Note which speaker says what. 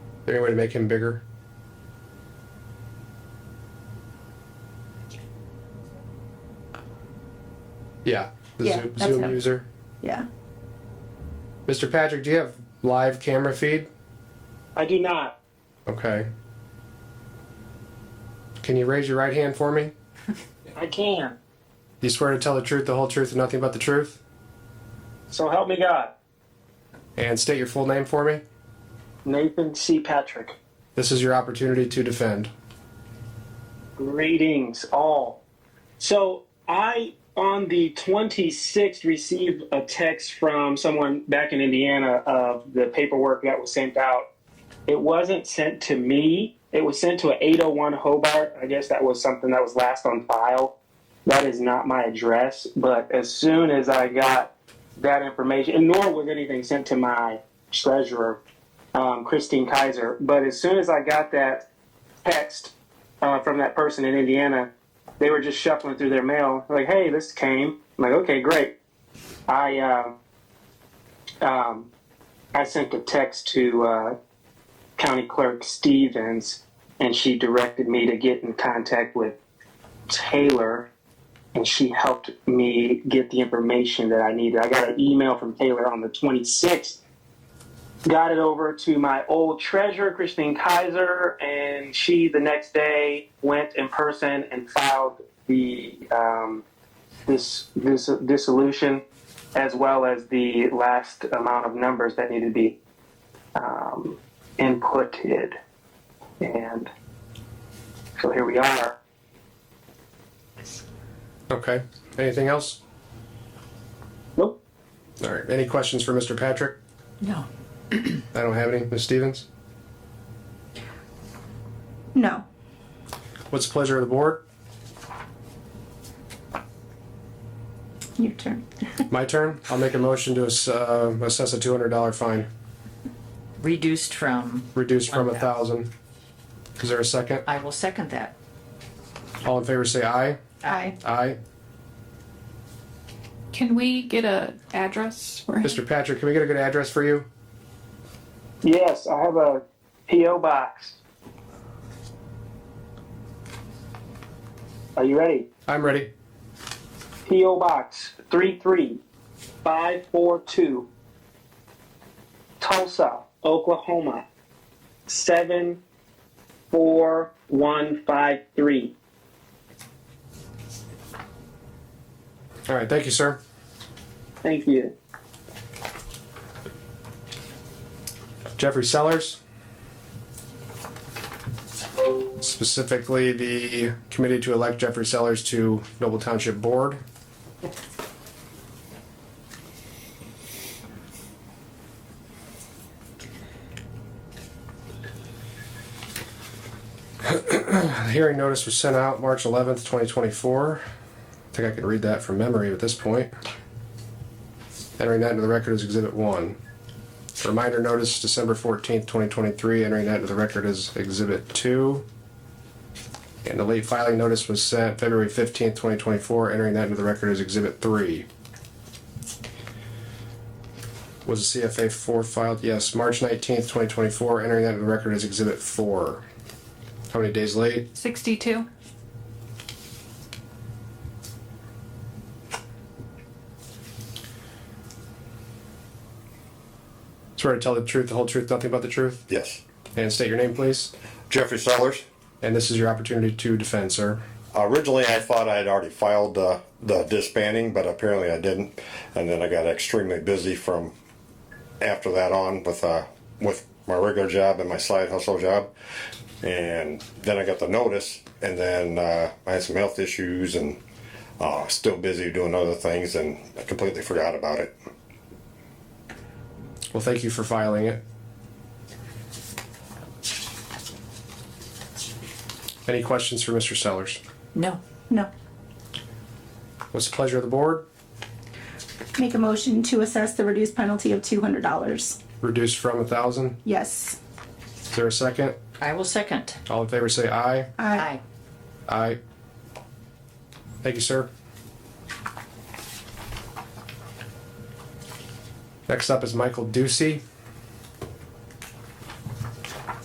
Speaker 1: there any way to make him bigger? Yeah, the
Speaker 2: Yeah,
Speaker 1: Zoom,
Speaker 2: that's
Speaker 1: Zoom
Speaker 2: him.
Speaker 1: user.
Speaker 2: Yeah.
Speaker 1: Mr. Patrick, do you have live camera feed?
Speaker 3: I do not.
Speaker 1: Okay. Can you raise your right hand for me?
Speaker 3: I can.
Speaker 1: Do you swear to tell the truth, the whole truth, and nothing but the truth?
Speaker 3: So help me God.
Speaker 1: And state your full name for me?
Speaker 3: Nathan C. Patrick.
Speaker 1: This is your opportunity to defend.
Speaker 3: Greetings, all. So I, on the 26th, received a text from someone back in Indiana of the paperwork that was sent out. It wasn't sent to me. It was sent to an 801 Hobart. I guess that was something that was last on file. That is not my address. But as soon as I got that information, and nor was anything sent to my treasurer, um, Christine Kaiser. But as soon as I got that text uh, from that person in Indiana, they were just shuffling through their mail, like, "Hey, this came." I'm like, "Okay, great." I uh, um, I sent a text to uh, County Clerk Stevens, and she directed me to get in contact with Taylor, and she helped me get the information that I needed. I got an email from Taylor on the 26th got it over to my old treasurer, Christine Kaiser, and she the next day went in person and filed the um, this this dissolution, as well as the last amount of numbers that needed to be um, inputted, and so here we are.
Speaker 1: Okay. Anything else?
Speaker 3: Nope.
Speaker 1: All right. Any questions for Mr. Patrick?
Speaker 2: No.
Speaker 1: I don't have any. Ms. Stevens?
Speaker 2: No.
Speaker 1: What's the pleasure of the board?
Speaker 2: Your turn.
Speaker 1: My turn? I'll make a motion to ass- uh, assess a $200 fine,
Speaker 4: reduced from,
Speaker 1: reduced from a
Speaker 4: Okay.
Speaker 1: 1000 Is there a second?
Speaker 4: I will second that.
Speaker 1: All in favor say aye.
Speaker 2: I.
Speaker 1: Aye.
Speaker 5: Can we get a address for him?
Speaker 1: Mr. Patrick, can we get a good address for you?
Speaker 3: Yes, I have a PO box. Are you ready?
Speaker 1: I'm ready.
Speaker 3: P.O. Box 33542, Tulsa, Oklahoma 74153.
Speaker 1: All right. Thank you, sir.
Speaker 3: Thank you.
Speaker 1: Jeffrey Sellers. Specifically, the committee to elect Jeffrey Sellers to Noble Township Board. The hearing notice was sent out March 11th, 2024. I think I can read that from memory at this point. Entering that into the record as Exhibit 1. Reminder notice, December fourteenth, twenty twenty-three, entering that into the record as exhibit two. And the late filing notice was sent February fifteenth, twenty twenty-four, entering that into the record as exhibit three. Was the CFA four filed? Yes, March nineteenth, twenty twenty-four, entering that into the record as exhibit four. How many days late?
Speaker 5: 62.
Speaker 1: Swear to tell the truth, the whole truth, nothing but the truth,
Speaker 6: Yes.
Speaker 1: and state your name, please.
Speaker 6: Jeffrey Sellers.
Speaker 1: And this is your opportunity to defend, sir.
Speaker 6: Originally, I thought I had already filed uh, the disbanding, but apparently I didn't. And then I got extremely busy from after that on with uh, with my regular job and my side hustle job. And then I got the notice, and then uh, I had some health issues and uh, still busy doing other things, and I completely forgot about it.
Speaker 1: Well, thank you for filing it. Any questions for Mr. Sellers?
Speaker 4: No,
Speaker 2: No.
Speaker 1: What's the pleasure of the board?
Speaker 2: Make a motion to assess the reduced penalty of two hundred dollars.
Speaker 1: Reduced from a thousand?
Speaker 2: Yes.
Speaker 1: Is there a second?
Speaker 4: I will second.
Speaker 1: All in favor say aye.
Speaker 2: I.
Speaker 4: Aye.
Speaker 1: Aye. Thank you, sir. Next up is Michael Ducey.